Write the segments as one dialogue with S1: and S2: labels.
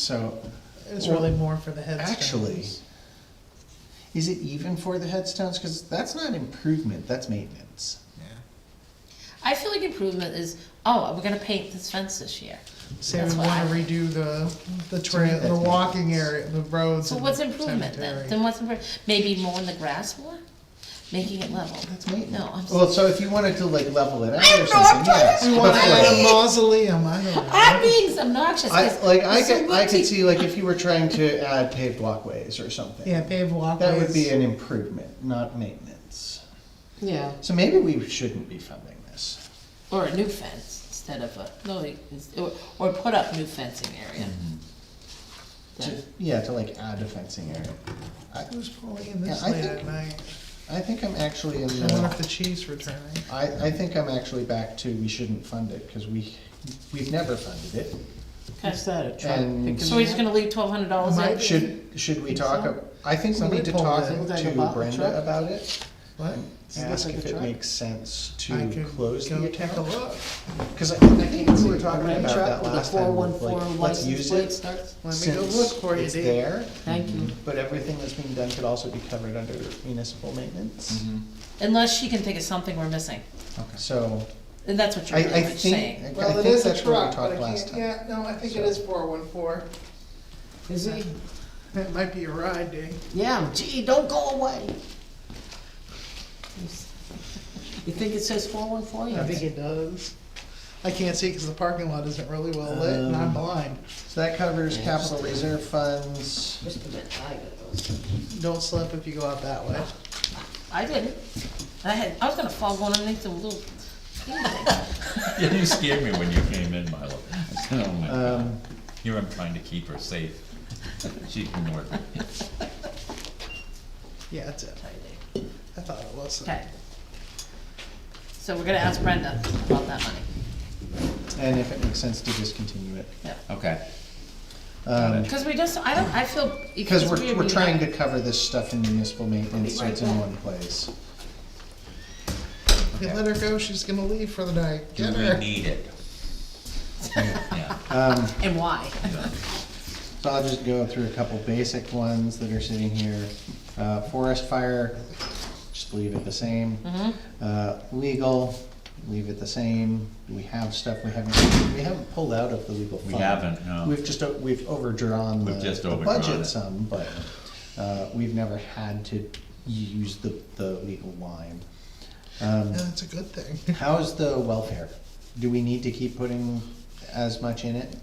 S1: So,
S2: It's
S1: Well,
S2: really more for the headstones.
S1: actually- is it even for the headstones? Because that's not improvement, that's maintenance.
S3: I feel like improvement is, oh, we're gonna paint this fence this year.
S2: Say
S3: That's
S2: we
S3: what
S2: wanna
S3: I-
S2: redo the, the trail,
S1: that's
S2: the walking
S1: maintenance.
S2: area, the roads.
S3: So
S2: and
S3: what's
S2: the
S3: improvement then?
S2: cemetery.
S3: Then what's improvement? Maybe mowing the grass more? Making it level?
S1: That's maintenance.
S3: No, I'm s-
S1: Well, so if you wanted to like level it out
S3: I
S1: or
S3: know,
S1: something,
S3: I'm
S1: yes.
S2: We
S1: but,
S2: wanna add a
S1: like,
S2: mausoleum, I don't know.
S3: I'm being obnoxious,
S1: I,
S3: 'cause
S1: like, I
S3: it's so
S1: could, I could
S3: multi-
S1: see, like, if you were trying to add paved walkways or something.
S2: Yeah, paved walkways.
S1: That would be an improvement, not maintenance.
S3: Yeah,
S1: So maybe we shouldn't be funding this.
S3: or a new fence instead of a, no, it's- or, or put up new fencing area.
S1: To,
S3: Then-
S1: yeah, to like add a fencing area. I,
S2: Who's pulling in this
S1: Yeah, I
S2: late
S1: think-
S2: at night?
S1: I think I'm actually in
S2: I wonder if
S1: the,
S2: the chief's returning.
S1: I, I think I'm actually back to we shouldn't fund it, cause we, we've never funded it.
S3: Okay,
S4: that, a
S1: And-
S4: picking
S3: so we're just
S4: up?
S3: gonna leave twelve hundred dollars
S2: Might
S3: in?
S1: Should, should we talk, ab- I think we
S2: Somebody
S1: need to
S2: pulled
S1: talk
S2: it.
S4: Looked like a
S1: to
S4: box
S1: Brenda
S4: truck.
S1: about it.
S2: What?
S4: Does it look
S1: Ask
S4: like a
S1: if it
S4: truck?
S1: makes sense
S2: I
S1: to
S2: could
S1: close the
S2: go take a
S1: account.
S2: look.
S1: Cause I I think we were
S4: It's a
S1: talking
S4: red
S1: about
S4: truck
S1: that
S4: with a
S1: last time,
S4: 414
S1: like, let's
S4: license
S1: use
S4: plate
S1: it
S4: starts.
S2: Let me go
S1: since
S2: look for you,
S1: it's
S2: Dee.
S1: there.
S4: Thank you.
S1: But everything that's being done could also be covered under municipal maintenance.
S4: Mm-hmm.
S3: Unless she can think of something we're missing,
S2: Mm-hmm.
S1: Okay. So,
S3: and that's what
S1: I,
S3: you're
S1: I
S3: really much saying.
S1: think,
S2: Well,
S1: I
S2: it
S1: think
S2: is a
S1: that's where we
S2: truck, but I
S1: talked last
S2: can't,
S1: time.
S2: yeah, no, I think it
S1: So-
S2: is four one four.
S4: Is he?
S2: That might be a ride, Dee.
S4: Yeah, gee, don't go away. You think it says four one four?
S2: I think it does. I can't see because the parking lot isn't really well lit and I'm
S1: Um,
S2: blind.
S1: So that covers
S4: Yeah,
S1: capital
S4: just-
S1: reserve funds.
S4: Just a minute, I got those.
S2: Don't slip if you go out that way.
S3: I didn't, I had, I was gonna fall going underneath the little
S5: Yeah, you scared me when you came in, Milo. Oh my God.
S1: Um,
S5: Here I'm trying to keep her safe. She can work it.
S2: Yeah, that's it. I thought it was.
S3: Okay. So we're gonna ask Brenda about that money.
S1: and if it makes sense to discontinue it.
S5: Okay.
S1: Um,
S3: Because we just, I don't, I feel.
S1: Because we're,
S3: weird
S1: we're
S3: we
S1: trying to
S3: have-
S1: cover this stuff in municipal maintenance, so it's in one place.
S2: You let her go, she's gonna leave for the night.
S5: Do
S2: Get
S5: we
S2: her.
S5: need it? Yeah.
S1: Um,
S3: And why?
S1: So I'll just go through a couple basic ones that are sitting here. Uh, Forest fire, just leave it the same.
S3: Mm-hmm.
S1: Uh, Legal, leave it the same. We have stuff we haven't, we haven't pulled out of the legal
S5: We
S1: fund.
S5: haven't, no.
S1: We've just, o- we've overdrawn the
S5: We've just
S1: the
S5: overdrawn
S1: budget
S5: it.
S1: some, but uh, we've never had to use the, the legal line. Um,
S2: And it's a good thing.
S1: How's the welfare? Do we need to keep putting as much in it?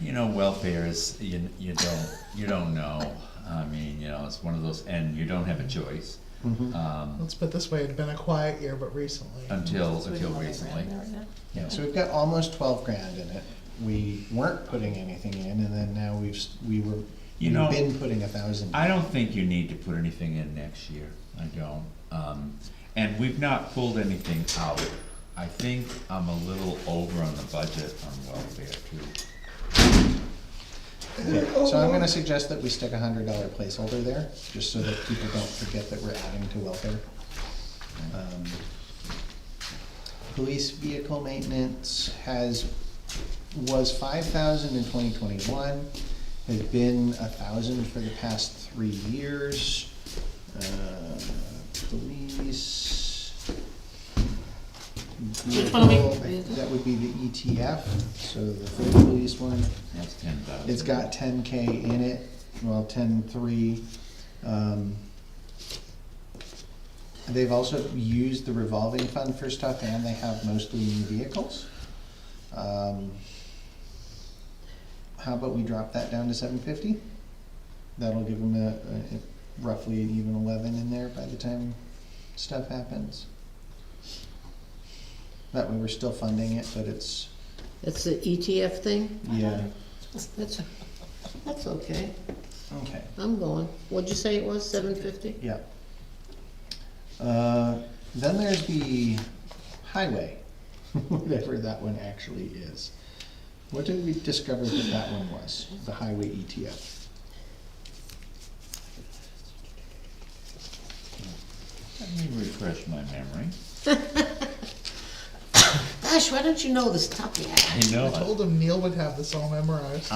S5: You know, welfare is, you, you don't, you don't know. I mean, you know, it's one of those, and you don't have a choice.
S2: Mm-hmm.
S5: Um,
S2: Let's put it this way, it'd been a quiet year, but recently.
S5: until,
S3: We
S5: until
S3: don't have it
S5: recently.
S3: around there right now.
S1: Yeah, so we've got almost twelve grand in it. We weren't putting anything in, and then now we've, s- we were,
S5: You
S1: we've
S5: know,
S1: been putting a thousand.
S5: I don't think you need to put anything in next year, I don't. Um, and we've not pulled anything out. I think I'm a little over on the budget on welfare too.
S1: Yeah, So I'm gonna suggest that we stick a hundred dollar placeholder there, just so that people don't forget that we're adding to welfare. Um, Police vehicle maintenance has, was five thousand in twenty twenty-one, has been a thousand for the past three years. Uh, Police. Vehicle, that would be the ETF, so the third police one.
S5: That's ten thousand.
S1: It's got ten K in it, well, ten three. Um, They've also used the revolving fund for stuff and they have mostly new vehicles. Um, How about we drop that down to seven fifty? That'll give them a, a- roughly an even eleven in there by the time stuff happens. That way we're still funding it, but it's,
S4: That's the ETF thing?
S1: yeah,
S4: That's, that's okay.
S1: okay.
S4: I'm going. What'd you say it was, seven fifty?
S1: Yeah. Uh, Then there's the highway, whatever that one actually is. What did we discover that that one was, the highway E ETF?
S5: Let me refresh my memory.
S4: gosh, why don't you know this stuff yet?
S5: I know.
S2: I told him Neil would have this all memorized.